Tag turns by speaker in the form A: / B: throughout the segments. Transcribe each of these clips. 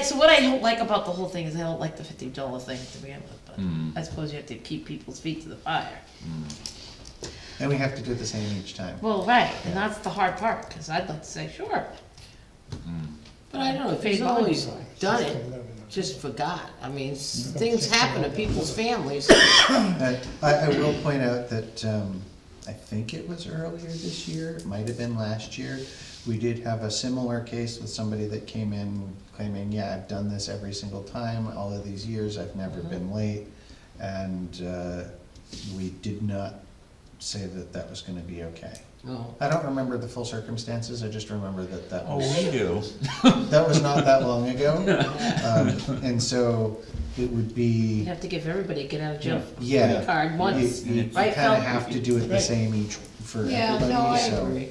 A: So what I don't like about the whole thing is I don't like the fifty dollar thing to begin with, but I suppose you have to keep people's feet to the fire.
B: And we have to do the same each time.
A: Well, right, and that's the hard part, cause I'd like to say, sure,
C: But I don't know, if
A: Phase
C: he's
A: one.
C: always done it, just forgot. I mean, s- things happen to people's families. It
B: Uh, I, I will point out that, um, I think it was earlier this year, it might have been last year. We did have a similar case with somebody that came in claiming, yeah, I've done this every single time, all of these years, I've never been late. And, uh, we did not say that that was gonna be okay.
D: Oh,
B: I don't remember the full circumstances, I just remember that that
E: Oh,
B: was.
E: we do.
B: That was not that long ago. Um, And so it would
A: you
B: be,
A: have to give everybody a get out of jail free
B: yeah,
A: card
B: you,
A: once,
B: you
A: right,
B: kind
A: Phil?
B: of have to do it the
C: Right.
B: same each for
F: Yeah, no,
B: everybody,
F: I
B: so.
F: agree.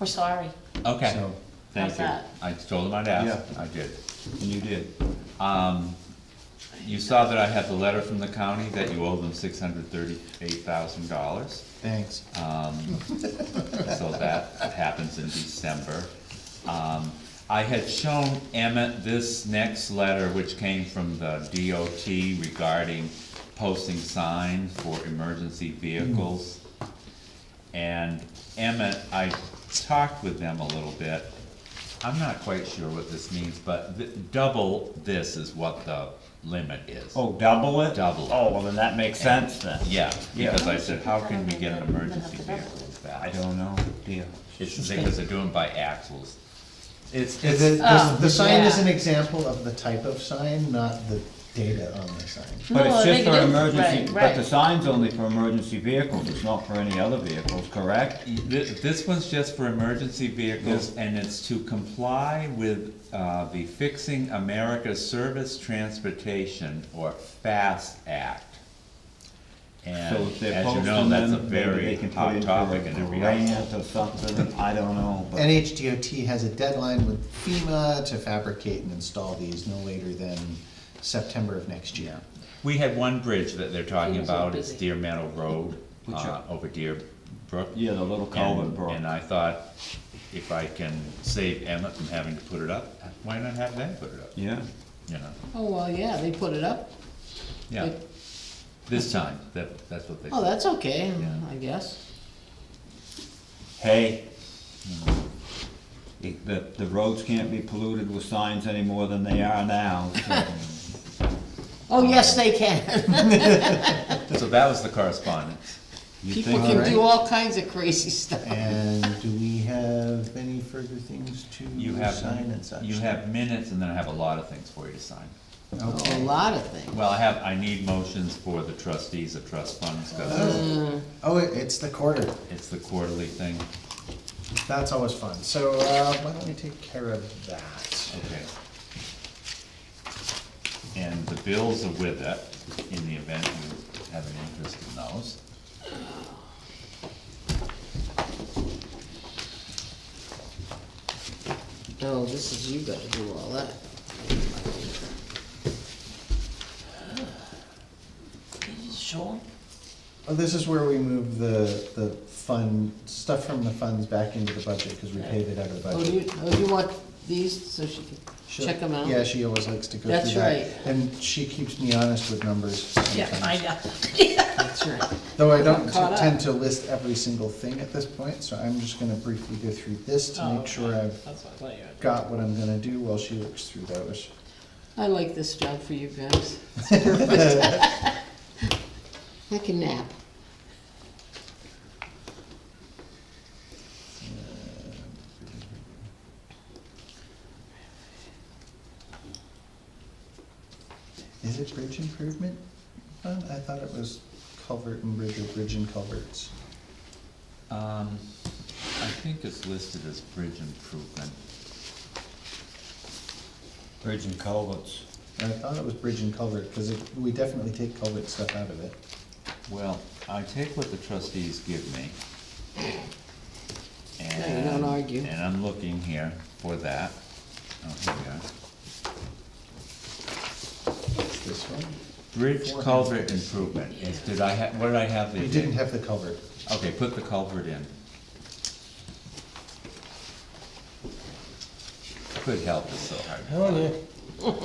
A: We're sorry,
E: Okay,
B: so-
A: How's
E: thank you.
A: that?
E: I told him I'd ask, I did, and you did. Um, you saw that I had the letter from the county that you owe them six hundred thirty-eight thousand dollars.
B: Thanks.
E: Uh, so that happens in December. Um, I had shown Emmett this next letter, which came from the DOT regarding posting signs for emergency vehicles. And Emmett, I talked with them a little bit. I'm not quite sure what this means, but th- double this is what the limit is.
D: Oh, double it?
E: Double it.
D: Oh, well, then that makes sense then.
E: Yeah,
D: Yeah.
E: because I said, how can we get an emergency
A: Then have to
E: vehicle
A: double
E: back?
D: I don't know, deal.
E: It's because they're doing by axles. It's,
B: The,
E: it's,
B: the- the sign is
A: Oh, yeah.
B: an example of the type of sign, not the data on the sign.
D: But
A: No, I
D: it's just
A: think it
D: for
A: is,
D: emergency,
A: right,
D: but the
A: right.
D: sign's only for emergency vehicles, it's not for any other vehicles, correct?
E: thi- this one's just for emergency vehicles, and it's to comply with, uh, the Fixing America's Service Transportation, or FAST Act.
D: So
E: And
D: if they're
E: as you
D: posting
E: know, that's a
D: them, maybe
E: very
D: they can put
E: hot
D: in
E: topic in
D: for a
E: every household.
D: grant or something, I don't know, but
B: NHDOT has a deadline with FEMA to fabricate and install these no later than September of next year.
E: We had one bridge that they're talking
A: Things are
E: about, it's
A: busy.
E: Deer Meadow Road,
D: Which
E: uh,
D: are-
E: over Deer Brook.
D: yeah, the little culvert
E: And-
D: broke.
E: And I thought, if I can save Emmett from having to put it up, why not have them put it up,
D: Yeah,
E: you know?
C: Oh, well, yeah, they put it up.
E: Yeah,
C: Like-
E: this time, that, that's what they,
C: Oh, that's okay,
E: Yeah.
C: I guess.
D: hey. It- The, the roads can't be polluted with signs any more than they are now, so.
C: Oh, yes, they can.
E: so that was the correspondence.
D: you
C: People
D: think-
C: can
B: Alright.
C: do all kinds of crazy stuff.
B: And do we have any further things to
E: You have,
B: sign and such?
E: you have minutes, and then I have a lot of things for you to sign.
C: A
B: Okay.
C: lot of things.
E: Well, I have, I need motions for the trustees of trust funds, because
B: Oh, it- it's the quarter.
E: it's the quarterly thing,
B: That's always fun. So uh, why don't we take care of that?
E: okay. And the bills are with it, in the event you have an interest in those.
C: No, this is, you gotta do all that.
A: sure.
B: Oh, this is where we move the the fund stuff from the funds back into the budget because we paid it out of the
C: Oh,
B: budget.
C: you, oh, you want these so she can
B: She'll-
C: check them out?
B: Yeah, she always likes to go
C: That's
B: through that,
C: right.
B: and she keeps me honest with numbers.
A: Yeah,
B: sometimes.
A: I know.
C: That's right.
B: Though I don't
C: Got caught up.
B: tend to list every single thing at this point, so I'm just gonna briefly go through this to
A: Oh,
B: make sure
A: okay.
B: I've
A: That's what I thought you had.
B: got what I'm gonna do while she looks through those.
C: I like this job for you guys. It's perfect. I can nap.
B: Is it bridge improvement? fund? I thought it was culvert and bridge or bridge and culverts.
E: Um, I think it's listed as bridge improvement.
D: Bridge and culverts.
B: I thought it was bridge and culvert, because it, we definitely take culvert stuff out of it.
E: Well, I take what the trustees give me.
C: Yeah, you don't
E: and-
C: argue.
E: And I'm looking here for that. Oh, here we are.
B: It's this one.
E: Bridge culvert improvement, is, did I have, what did I have?
B: We didn't have the culvert.
E: Okay, put the culvert in. Could help, it's so hard. to find.